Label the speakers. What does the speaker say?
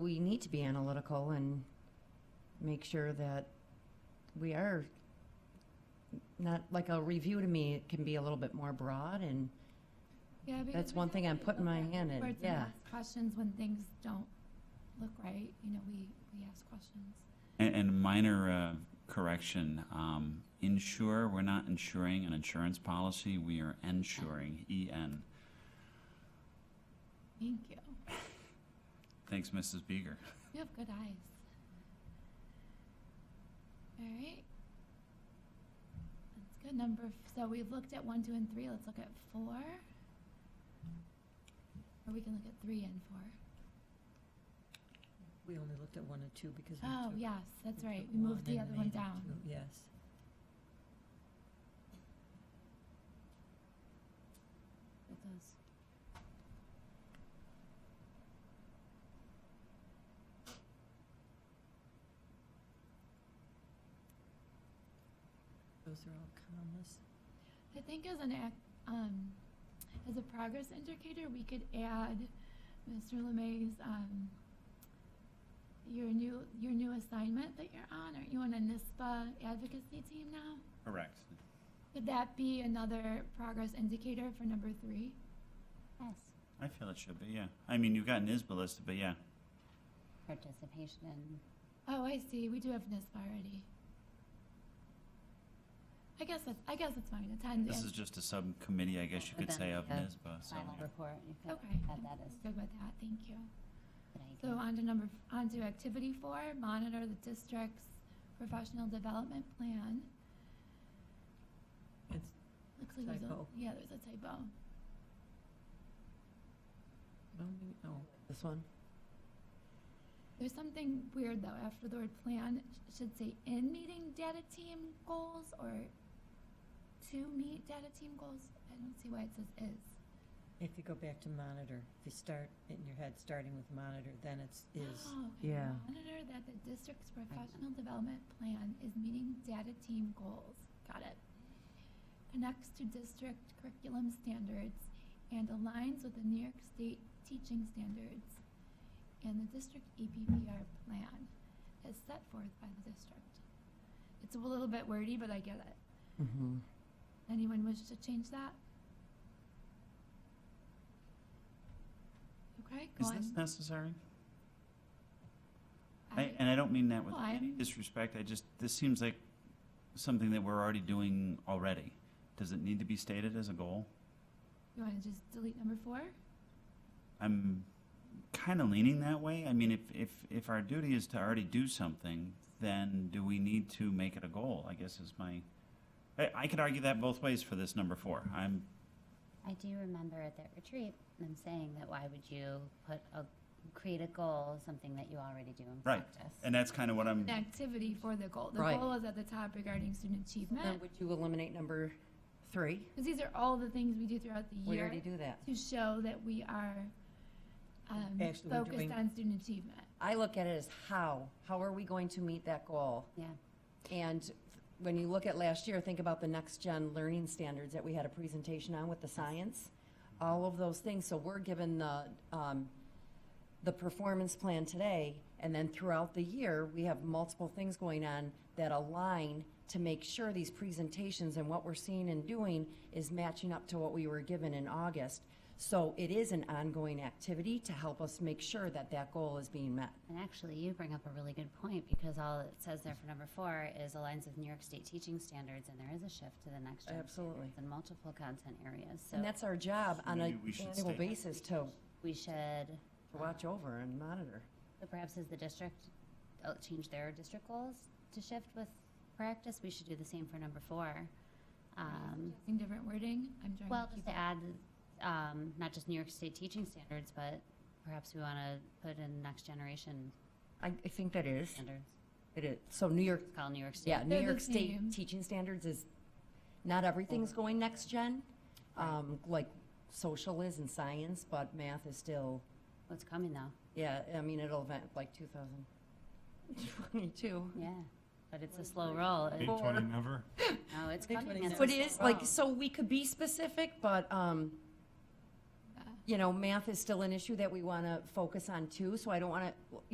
Speaker 1: we need to be analytical and make sure that we are not, like a review to me, it can be a little bit more broad and
Speaker 2: Yeah, because
Speaker 1: that's
Speaker 2: we
Speaker 1: one
Speaker 2: have
Speaker 1: thing I'm
Speaker 2: to
Speaker 1: putting
Speaker 2: look
Speaker 1: my
Speaker 2: at
Speaker 1: hand in,
Speaker 2: reports and
Speaker 1: yeah.
Speaker 2: ask Questions when things don't look right, you know, we, we ask questions.
Speaker 3: And, and minor uh, correction, um, insure, we're not insuring an insurance policy, we are E ensuring, E-N.
Speaker 2: Thank you.
Speaker 3: Thanks, Mrs. Beeger.
Speaker 2: You have good eyes. All right. That's good. Number, f- so we've looked at one, two, and three. Let's look at four. Or we can look at three and four.
Speaker 4: We only looked at one and two because. we
Speaker 2: Oh,
Speaker 4: took-
Speaker 2: yes, that's
Speaker 4: we
Speaker 2: right.
Speaker 4: took
Speaker 2: We moved
Speaker 4: and
Speaker 2: the other one
Speaker 4: made it
Speaker 2: down.
Speaker 4: two, Yes.
Speaker 2: It does.
Speaker 4: Those are all commas.
Speaker 2: I think as an act, um, as a progress indicator, we could add Mr. LeMay's, um, your new, your new assignment that you're on, aren't you on a NISPA advocacy team now?
Speaker 3: Correct.
Speaker 2: Could that be another progress indicator for number three?
Speaker 5: Yes,
Speaker 3: I feel it should be, yeah. I mean, you've got NISBA listed, but yeah.
Speaker 5: participation in,
Speaker 2: Oh, I see, we do have NISPA already. I guess that's, I guess it's fine, attend.
Speaker 3: This
Speaker 2: and-
Speaker 3: is just a subcommittee, I guess you could say, of
Speaker 5: Yeah.
Speaker 3: NISBA, so.
Speaker 5: final report, you could
Speaker 2: Okay,
Speaker 5: add
Speaker 2: I'm
Speaker 5: that as
Speaker 2: good with that, thank you.
Speaker 5: an
Speaker 2: So
Speaker 5: idea.
Speaker 2: on to number, on to activity four, monitor the district's professional development plan.
Speaker 4: It's
Speaker 2: Looks like there's a,
Speaker 4: Typo.
Speaker 2: yeah, there's a typo.
Speaker 4: no, maybe- no.
Speaker 1: this one.
Speaker 2: There's something weird though, after the word plan, it should say in meeting data team goals or to meet data team goals. I don't see why it says is.
Speaker 4: If you go back to monitor, if you start in your head, starting with monitor, then it's is.
Speaker 2: Oh, okay.
Speaker 1: Yeah.
Speaker 2: Monitor that the district's professional development plan is meeting data team goals. Got it. Connects to district curriculum standards and aligns with the New York State teaching standards and the district E EPPR plan as set forth by the district. It's a little bit wordy, but I get it.
Speaker 1: Mm-hmm.
Speaker 2: Anyone wish to change that? Okay, go
Speaker 3: Is
Speaker 2: on.
Speaker 3: this necessary?
Speaker 2: I-
Speaker 3: I, and I don't mean that with
Speaker 2: Well, I
Speaker 3: any
Speaker 2: am-
Speaker 3: disrespect, I just, this seems like something that we're already doing already. Does it need to be stated as a goal?
Speaker 2: You want to just delete number four?
Speaker 3: I'm kind of leaning that way. I mean, if, if, if our duty is to already do something, then do we need to make it a goal? I guess is my, I, I could argue that both ways for this number four. I'm,
Speaker 5: I do remember at that retreat, them saying that why would you put a, create a goal, something that you already do in
Speaker 3: Right.
Speaker 5: practice?
Speaker 3: and that's kind of what I'm,
Speaker 2: An activity for the goal. The
Speaker 1: Right.
Speaker 2: goal is at the top regarding
Speaker 1: Then
Speaker 2: student achievement.
Speaker 1: would you eliminate number three?
Speaker 2: Because these are all the things we do throughout the
Speaker 1: We
Speaker 2: year
Speaker 1: already do that.
Speaker 2: to show that we are um,
Speaker 4: Actually, we're
Speaker 2: focused
Speaker 4: doing-
Speaker 2: on student achievement.
Speaker 1: I look at it as how, how are we going to meet that goal?
Speaker 5: Yeah,
Speaker 1: And when you look at last year, think about the next gen learning standards that we had a presentation on with the science, all of those things. So we're given the, um, the performance plan today, and then throughout the year, we have multiple things going on that align to make sure these presentations and what we're seeing and doing is matching up to what we were given in August. So it is an ongoing activity to help us make sure that that goal is being met.
Speaker 5: and actually you bring up a really good point because all it says there for number four is aligns with New York State teaching standards and there is a shift to the next gen
Speaker 1: Absolutely.
Speaker 5: in multiple content areas, so
Speaker 1: And that's our job on
Speaker 3: Maybe
Speaker 1: an
Speaker 3: we should
Speaker 1: annual
Speaker 3: state-
Speaker 1: basis to
Speaker 5: we should,
Speaker 1: to watch over and monitor.
Speaker 5: so perhaps as the district uh, change their district goals to shift with practice, we should do the same for number four. Um,
Speaker 2: Using different wording, I'm trying
Speaker 5: Well,
Speaker 2: to
Speaker 5: just
Speaker 2: keep
Speaker 5: to add, um, not just New York State teaching standards, but perhaps we want to put in next generation
Speaker 1: I, I think that is,
Speaker 5: standards.
Speaker 1: it is. So New York,
Speaker 5: It's called New York State.
Speaker 1: yeah, New
Speaker 2: They're the
Speaker 1: York State
Speaker 2: same.
Speaker 1: teaching standards is, not everything's going next gen, um, like social is and science, but math is still,
Speaker 5: What's coming though?
Speaker 1: yeah, I mean, it'll event like 2022.
Speaker 5: Yeah, but it's a slow roll. It-
Speaker 6: Big twenty never.
Speaker 5: No, it's
Speaker 4: Big
Speaker 5: coming.
Speaker 4: twenty now.
Speaker 5: It's a
Speaker 1: But
Speaker 5: slow
Speaker 1: it is, like,
Speaker 5: roll.
Speaker 1: so we could be specific, but, um,
Speaker 2: that.
Speaker 1: you know, math is still an issue that we want to focus on too, so I don't want to,